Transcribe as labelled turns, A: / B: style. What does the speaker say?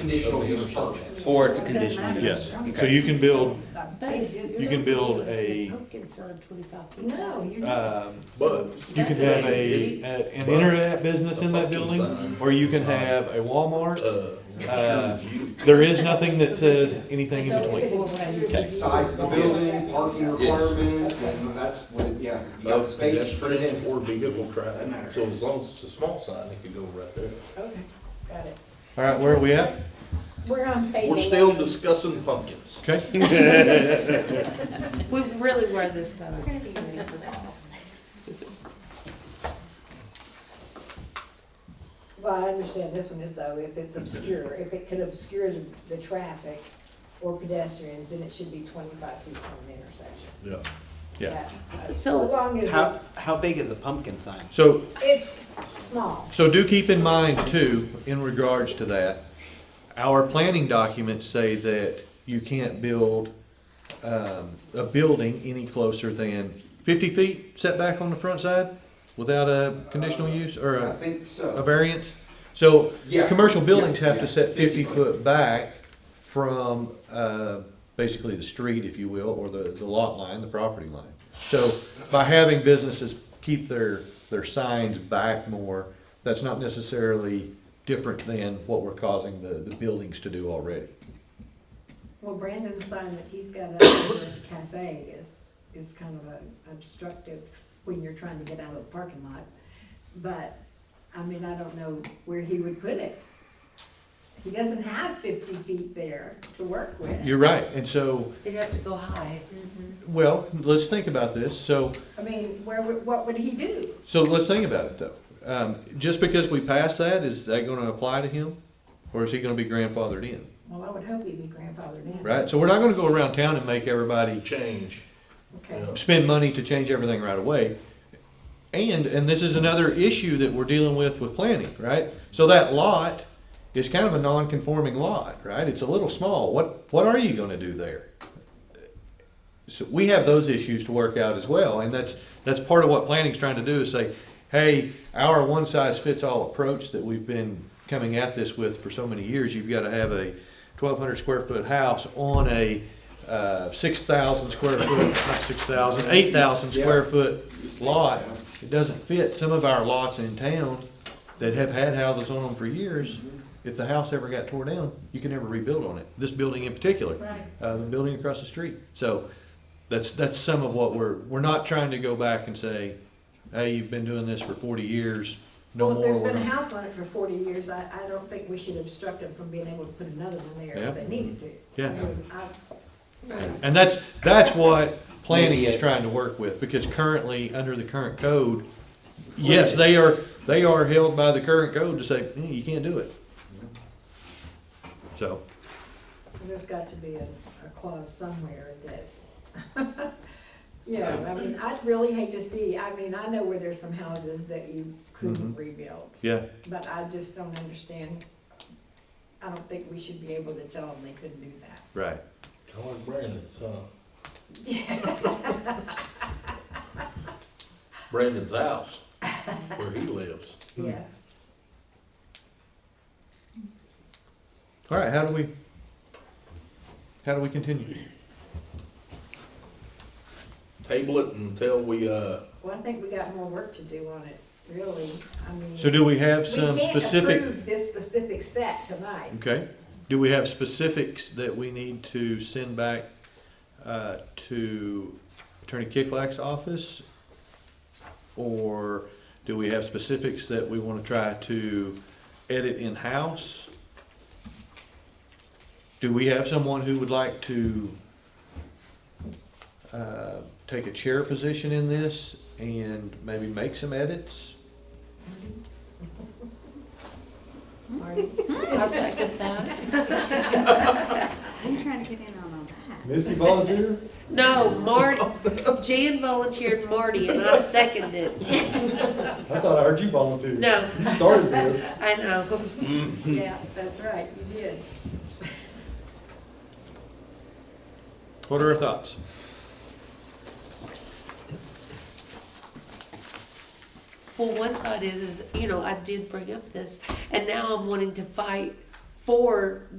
A: conditional use permit.
B: Or it's a conditional use?
C: Yes, so
B: Okay.
C: you can build,
D: You
C: you can build a,
D: No, you
C: um,
E: But
C: you can have a, a- an internet business in that building, or you can have a Walmart.
E: uh,
C: Uh, There is nothing that says anything in between.
D: Okay.
A: Size of the building, parking requirements, and that's what, yeah, you got the space to put it
E: pedestrian
A: in.
E: or vehicle
A: Doesn't
E: traffic,
A: matter.
E: so as long as it's a small sign, it could go right there.
D: Okay, got it.
C: All right, where are we at?
D: We're on page
E: We're still
D: 11.
E: discussing pumpkins.
C: Okay,
F: We really were this time.
D: We're gonna be ready for that. Well, I understand this one is though, if it's obscure, if it could obscure the, the traffic or pedestrians, then it should be twenty-five feet from the intersection.
E: Yeah.
C: yeah,
D: That- uh, So long
G: How,
D: as
G: how big is a pumpkin sign?
C: so
D: it's, it's small.
C: So do keep in mind too, in regards to that, our planning documents say that you can't build, um, a building any closer than fifty feet setback on the front side without a conditional use or
A: I
C: a,
A: think
C: a
A: so.
C: variance. So,
A: Yeah.
C: commercial buildings have
A: Yeah,
C: to set
A: yeah,
C: fifty
A: 50 foot.
C: foot back from, uh, basically the street, if you will, or the, the lot line, the property line. So by having businesses keep their, their signs back more, that's not necessarily different than what we're causing the, the buildings to do already.
D: Well, Brandon's sign that he's got up over at the cafe is, is kind of a obstructive when you're trying to get out of the parking lot. But, I mean, I don't know where he would put it. He doesn't have fifty feet there to work with.
C: You're right, and so,
F: They'd have to go high.
C: well, let's think about this, so.
D: I mean, where, would- what would he do?
C: So let's think about it though. Um, just because we pass that, is that gonna apply to him? Or is he gonna be grandfathered in,
D: Well, I would hope he'd be grandfathered in.
C: right? So we're not gonna go around town and make everybody
E: Change.
D: Okay.
C: spend money to change everything right away. And, and this is another issue that we're dealing with with planning, right? So that lot is kind of a non-conforming lot, right? It's a little small. What, what are you gonna do there? So we have those issues to work out as well, and that's, that's part of what planning's trying to do is say, hey, our one-size-fits-all approach that we've been coming at this with for so many years, you've gotta have a twelve hundred square foot house on a, uh, six thousand square foot, not six thousand, eight thousand square foot lot. It doesn't fit some of our lots in town that have had houses on them for years. If the house ever got tore down, you can never rebuild on it, this building in particular.
D: Right.
C: Uh, the building across the street, so that's, that's some of what we're, we're not trying to go back and say, hey, you've been doing this for forty years, no
D: Well, if
C: more.
D: there's
C: we're
D: been a
C: gonna-"
D: house on it for forty years, I, I don't think we should obstruct them from being able to put another one there
C: Yeah.
D: if they needed to.
C: Yeah.
D: I mean, I-
C: And that's, that's what planning is trying to work with, because currently, under the current code, yes, they are, they are held by the current code to say, "Mm, you can't do it. So,
D: There's got to be a, a clause somewhere in this. Yeah, I mean, I'd really hate to see, I mean, I know where there's some houses that you couldn't
C: Mhm.
D: rebuild,
C: yeah,
D: but I just don't understand. I don't think we should be able to tell them they couldn't do that.
C: right.
E: Call it Brandon's, huh? Brandon's house, where he lives.
D: Yeah,
C: Mm-hmm. All right, how do we, how do we continue?
E: Table it until we, uh,
D: well, I think we got more work to do on it, really, I mean.
C: So do we have
D: we
C: some
D: can't
C: specific,
D: approve This specific set tonight.
C: okay, do we have specifics that we need to send back, uh, to Attorney Kicklack's office? Or do we have specifics that we wanna try to edit in-house? Do we have someone who would like to, uh, take a chair position in this and maybe make some edits?
D: Marty?
F: I'll second that.
H: I'm trying to get in on all that.
A: Misty volunteer?
F: No, Marty, Jan volunteered Marty and I seconded it.
A: I thought I heard you volunteer.
F: No,
A: You started this.
F: I know.
C: Mm-hmm.
D: Yeah, that's right, you did.
C: What are our thoughts?
F: Well, one thought is, is, you know, I did bring up this and now I'm wanting to fight for